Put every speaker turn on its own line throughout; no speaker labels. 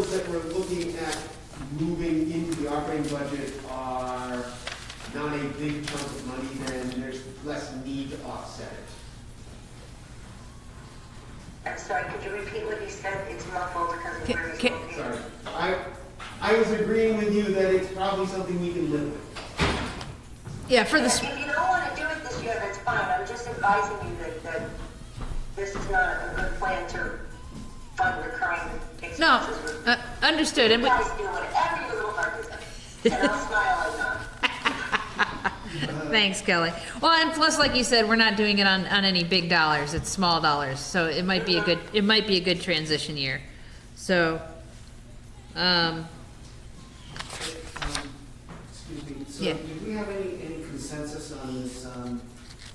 we're looking at moving into the operating budget are not a big chunk of money, then there's less need to offset it.
I'm sorry, could you repeat what you said? It's muffled because of
Ca-
where it's
ca-
located.
Sorry. I, I was agreeing with you that it's probably something we can live with.
Yeah, for the,
If
s-
you don't want to do it this year, that's fine. I'm just advising you that, that this is not a good plan to fund recurring expenses.
no, uh, understood, and
You
we,
guys do whatever your little heart desires, and I'll smile at that.
thanks, Kelly. Well, and plus, like you said, we're not doing it on, on any big dollars, it's small dollars, so it might be a good, it might be a good transition year. So, um,
Um, Excuse me, so
Yeah.
did we have any, any consensus on this um,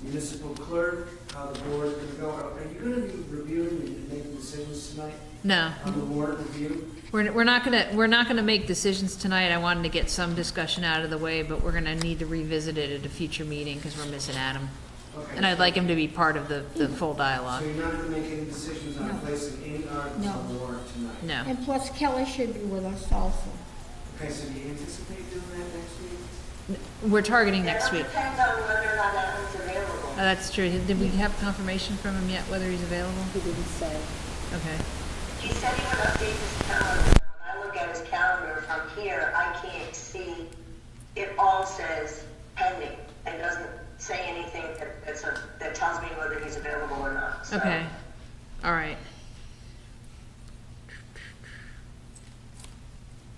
municipal clerk, how the board is gonna go? Are are you gonna be reviewing and making decisions tonight
no,
on the warrant review?
we're, we're not gonna, we're not gonna make decisions tonight, I wanted to get some discussion out of the way, but we're gonna need to revisit it at a future meeting, because we're missing Adam.
Okay.
And I'd like him to be part of the, the full
So
dialogue,
you're not gonna make any decisions on placing any articles on the warrant tonight?
no.
And plus Kelly should be with us also.
Okay, so do you anticipate doing that next week?
We're targeting next
It
week.
all depends on whether or not Adam's
Oh,
available.
That's true. Did we have confirmation from him yet, whether he's available? He didn't say. Okay.
He said he would update his calendar. When I look at his calendar from here, I can't see, it all says pending and doesn't say anything that, that's a, that tells me whether he's available or not, so.
Okay, all right.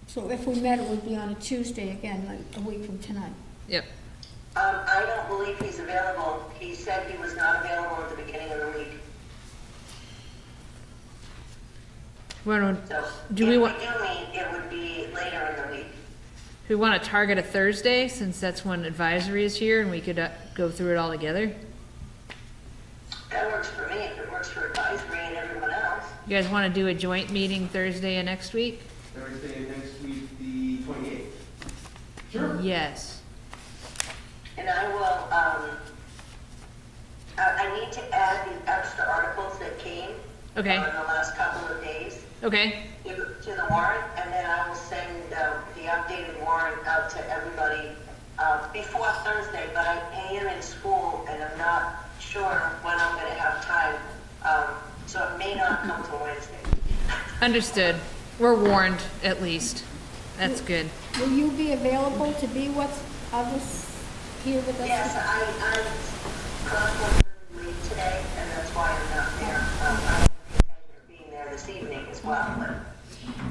So if we met, it would be on a Tuesday again, like a week from tonight.
Yep,
Um, I don't believe he's available. He said he was not available at the beginning of the week,
Well,
so.
Do we want-
If we do meet, it would be later in the week.
we want to target a Thursday, since that's when advisory is here, and we could uh, go through it all together.
That works for me, if it works for advisory and everyone else.
You guys want to do a joint meeting Thursday of next week?
Thursday next week, the twenty-eighth. Sure.
Yes.
And I will, um, I, I need to add the extra articles that came.
Okay.
uh, In the last couple of days
Okay,
to to the warrant, and then I will send, uh, the updated warrant out to everybody, uh, before Thursday, but I am in school and I'm not sure when I'm gonna have time, um, so it may not come till Wednesday.
understood. We're warned, at least. That's good.
Will you be available to be with others here with us?
Yes, I, uh, I'm cross-country today, and that's why I'm not there. Um, I intend being there this evening as well,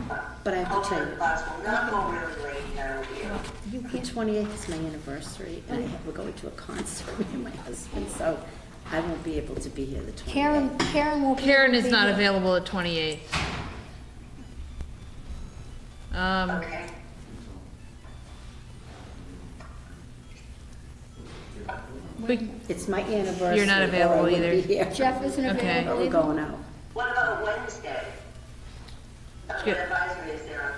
but.
But I have to
hopefully
tell you-
the class will not go really late, and I will be able-
The 28th is my anniversary, and I have- we're going to a concert, me and my husband, so I won't be able to be here the 28th.
Karen, Karen will be.
Karen is not
be-
available at 28. Um,
Okay.
we,
It's my anniversary.
You're not
or I
available
wouldn't be
either.
here.
Jeff isn't
Okay.
But
available
we're
either?
going out.
What about Wednesday? Uh,
Good.
The advisory is there.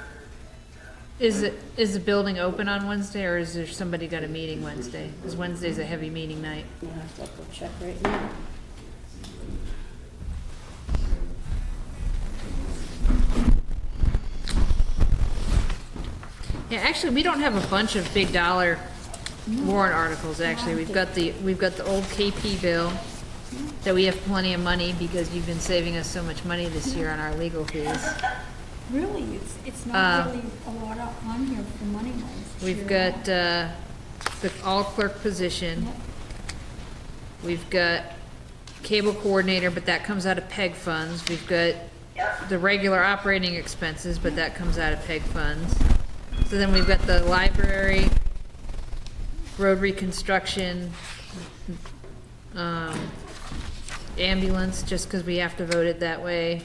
Is, it is the building open on Wednesday, or is there somebody got a meeting Wednesday? Because Wednesday's a heavy meeting night.
You have to go check right now.
Yeah, actually, we don't have a bunch of big dollar warrant articles, actually. We've got the, we've got the old KP bill, that we have plenty of money, because you've been saving us so much money this year on our legal fees.
Really, it's, it's
Uh,
not really a lot up on here for money wise.
We've got, uh, the all clerk position. We've got cable coordinator, but that comes out of PEG funds. We've got
Yep.
the regular operating expenses, but that comes out of PEG funds. So then we've got the library, road reconstruction, um, ambulance, just because we have to vote it that way.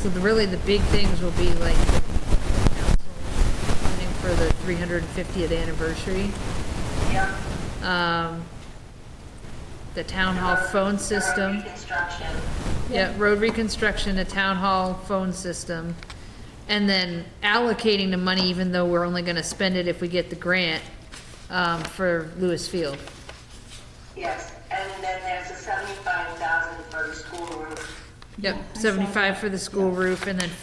So the, really, the big things will be like the council funding for the 350th anniversary,
Yep.
um, the town hall
Um,
phone system.
Reconstruction.
Yeah, road reconstruction, a town hall phone system, and then allocating the money, even though we're only gonna spend it if we get the grant, um, for Lewis Field.
Yes, and then there's a seventy-five thousand for the school roof.
Yep, seventy-five for the school roof, and then